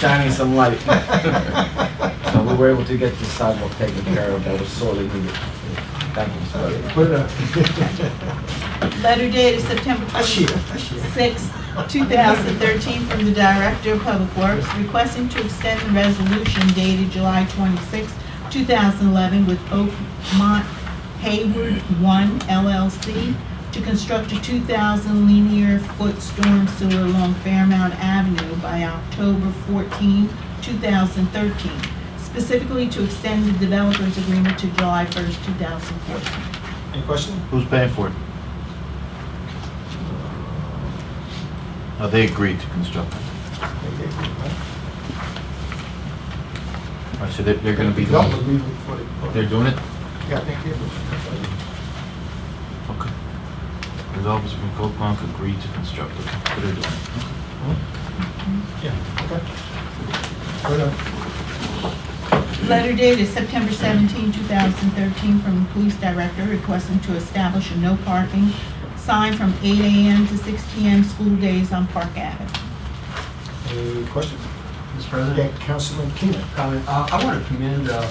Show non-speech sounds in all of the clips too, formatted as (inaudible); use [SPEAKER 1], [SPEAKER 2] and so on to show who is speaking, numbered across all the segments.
[SPEAKER 1] shining some light. (laughs) So we were able to get the sidewalk taken care of, that was sorely needed. Thank you, Mr. President.
[SPEAKER 2] Put it up.
[SPEAKER 3] Letter dated September
[SPEAKER 2] Ashia,
[SPEAKER 3] 26,
[SPEAKER 2] Ashia.
[SPEAKER 3] 2013, from the Director of Public Works requesting to extend the resolution dated July 26, 2011, with Oakmont Hayward 1 LLC to construct a 2,000 linear foot storm sewer along Fairmount Avenue by October 14, 2013, specifically to extend the developer's agreement to July 1, 2014.
[SPEAKER 2] Any question?
[SPEAKER 4] Who's paying for it? Oh, they agreed to construct it. All right, so they're, they're gonna be, the
[SPEAKER 2] Don't
[SPEAKER 4] ones-
[SPEAKER 2] agree with what it-
[SPEAKER 4] they're doing it?
[SPEAKER 2] Yeah, thank you.
[SPEAKER 4] Okay. The Developers from Goldmark agreed to construct it. That's what they're doing.
[SPEAKER 2] Yeah, okay. uh, Put it up.
[SPEAKER 3] Letter dated September 17, 2013, from the Police Director requesting to establish a no parking sign from 8 a.m. to 6 p.m. school days on Park Avenue.
[SPEAKER 2] Any questions?
[SPEAKER 5] Mr.
[SPEAKER 2] Yeah,
[SPEAKER 5] President,
[SPEAKER 2] Councilman Keenan.
[SPEAKER 5] comment. Uh, I want to commend uh,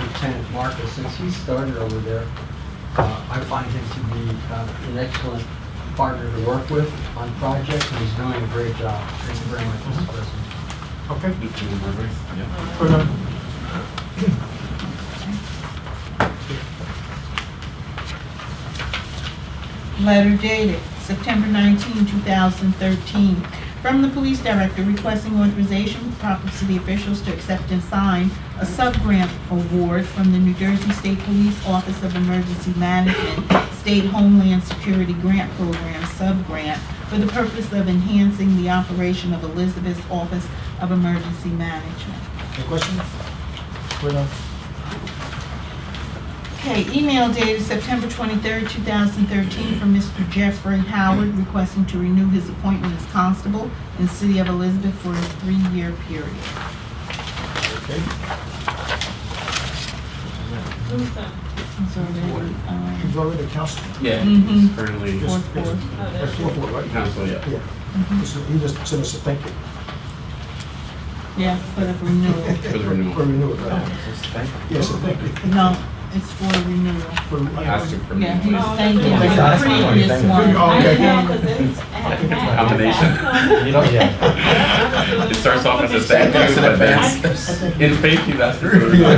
[SPEAKER 5] Lieutenant Marcus, since he started over there. uh, I find him to be uh, an excellent partner to work with on projects, and he's doing a great job. Thank you very much, Mr. President.
[SPEAKER 2] Okay. uh,
[SPEAKER 4] Yeah.
[SPEAKER 2] Put it up.
[SPEAKER 3] Letter dated September 19, 2013, from the Police Director requesting authorization for proper city officials to accept and sign a sub-grant award from the New Jersey State Police Office of Emergency Management State Homeland Security Grant Program sub-grant for the purpose of enhancing the operation of Elizabeth's Office of Emergency Management.
[SPEAKER 2] Any uh, questions? Put it up.
[SPEAKER 3] Okay, email dated September 23rd, 2013, from Mr. Jeffrey Howard requesting to renew his appointment as constable in the City of Elizabeth for a three-year period.
[SPEAKER 2] Okay.
[SPEAKER 6] Who's that?
[SPEAKER 3] It's already, um,
[SPEAKER 2] You've already councilman.
[SPEAKER 7] Yeah,
[SPEAKER 3] Mhm.
[SPEAKER 7] it's currently
[SPEAKER 2] Yes,
[SPEAKER 3] Fourth
[SPEAKER 2] yes.
[SPEAKER 3] ward.
[SPEAKER 6] Oh,
[SPEAKER 2] That's
[SPEAKER 6] that's-
[SPEAKER 2] fourth ward, right?
[SPEAKER 7] council, yeah.
[SPEAKER 2] Yeah. So You just sent us a thank you.
[SPEAKER 3] Yeah, for the renewal.
[SPEAKER 7] For the renewal.
[SPEAKER 2] For renewal, right.
[SPEAKER 1] Thank you.
[SPEAKER 2] Yes, a thank you.
[SPEAKER 3] No, it's for renewal.
[SPEAKER 2] For-
[SPEAKER 7] Asking for
[SPEAKER 3] Yeah, he
[SPEAKER 7] me.
[SPEAKER 3] was thanking
[SPEAKER 2] Thank you.
[SPEAKER 3] the previous one.
[SPEAKER 2] Oh,
[SPEAKER 6] I
[SPEAKER 2] okay.
[SPEAKER 6] know, 'cause it's- I
[SPEAKER 7] (laughs)
[SPEAKER 6] have
[SPEAKER 7] it's a
[SPEAKER 6] that. (laughs)
[SPEAKER 7] combination.
[SPEAKER 1] You don't, yeah.
[SPEAKER 7] (laughs) It starts off as a thank
[SPEAKER 1] Thanks
[SPEAKER 7] you,
[SPEAKER 1] in
[SPEAKER 6] (laughs)
[SPEAKER 7] but (laughs)
[SPEAKER 1] advance.
[SPEAKER 7] then in faith
[SPEAKER 8] (laughs)
[SPEAKER 7] you ask for
[SPEAKER 2] Yeah.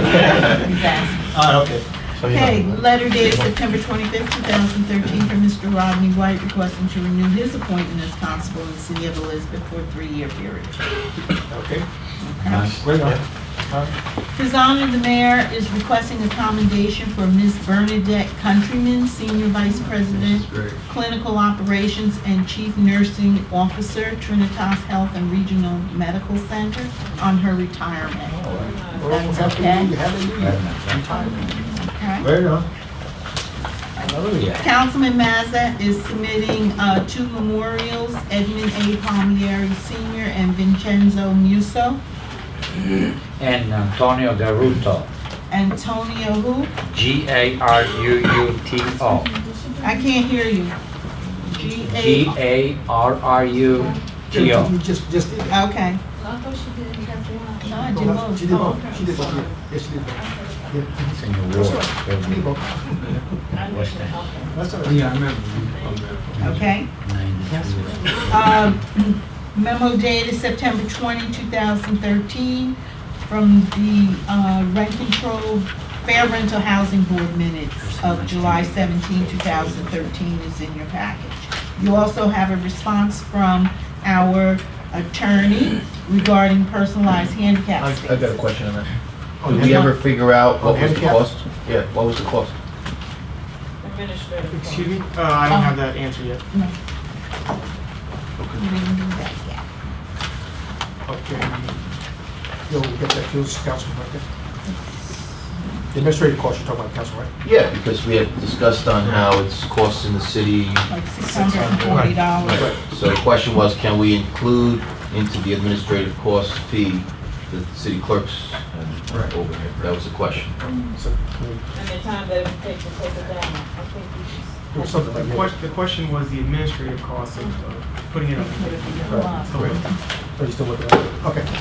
[SPEAKER 7] it.
[SPEAKER 3] Exactly.
[SPEAKER 2] Ah, okay.
[SPEAKER 4] So, you know,
[SPEAKER 3] Okay, letter dated September 25th, 2013, from Mr. Rodney White requesting to renew his appointment as constable in the City of Elizabeth for a three-year period.
[SPEAKER 2] Okay. uh,
[SPEAKER 4] nice.
[SPEAKER 2] Wait on.
[SPEAKER 3] His Honor the Mayor is requesting a commendation for Ms. Bernadette Countryman, Senior Vice President, Clinical Operations and Chief Nursing Officer, Trinitas Health and Regional Medical Center, on her retirement. That's okay.
[SPEAKER 2] Hallelujah, hallelujah. Retirement.
[SPEAKER 3] Okay?
[SPEAKER 2] Wait on.
[SPEAKER 1] Hallelujah.
[SPEAKER 3] Councilman Mazza is submitting uh, two memorials, Edmund A. Palmieri Senior and Vincenzo Musso.
[SPEAKER 9] and Antonio Garuto,
[SPEAKER 3] Antonio who?
[SPEAKER 9] G A R U U T O.
[SPEAKER 3] I can't hear you. G
[SPEAKER 9] G
[SPEAKER 3] A,
[SPEAKER 9] A R R U T O.
[SPEAKER 2] You just, just did. that.
[SPEAKER 3] okay.
[SPEAKER 6] I thought she did it as well.
[SPEAKER 3] No, I did both.
[SPEAKER 2] She did
[SPEAKER 3] Oh,
[SPEAKER 2] both. She did both. Yes, she did both. Yeah. She did both.
[SPEAKER 6] I knew she did. Okay.
[SPEAKER 2] That's all right.
[SPEAKER 5] Yeah, I remember.
[SPEAKER 3] Okay. Um, Memo dated September 20, 2013, from the uh, Rent Control Fair Rental Housing Board minutes of July 17, 2013 is in your package. You also have a response from our attorney regarding personalized handicap
[SPEAKER 4] I got a
[SPEAKER 3] spaces.
[SPEAKER 4] question on that.
[SPEAKER 2] Oh,
[SPEAKER 4] Did
[SPEAKER 2] yeah.
[SPEAKER 4] we ever figure out what was the
[SPEAKER 2] Handicap?
[SPEAKER 4] cost? Yeah, what was the cost?
[SPEAKER 6] Administrative.
[SPEAKER 8] Excuse me? Uh, I don't have that answer yet.
[SPEAKER 3] We didn't do that yet.
[SPEAKER 2] Okay. Yo, we get that, those council right there. The administrative cost, you're talking about council, right?
[SPEAKER 4] Yeah, because we had discussed on how it's costing the city.
[SPEAKER 3] Like $640.
[SPEAKER 4] So the question was, can we include into the administrative cost fee the city clerk's
[SPEAKER 2] Right.
[SPEAKER 4] and overhead? That was the question.
[SPEAKER 2] So, can we
[SPEAKER 6] And the time that it would take to take it down, I think we
[SPEAKER 2] do
[SPEAKER 6] should.
[SPEAKER 2] something
[SPEAKER 8] The
[SPEAKER 2] like that?
[SPEAKER 8] question, the question was the administrative cost of of putting it up.
[SPEAKER 3] Put it together.
[SPEAKER 8] So-
[SPEAKER 2] Are you still working on it? Okay.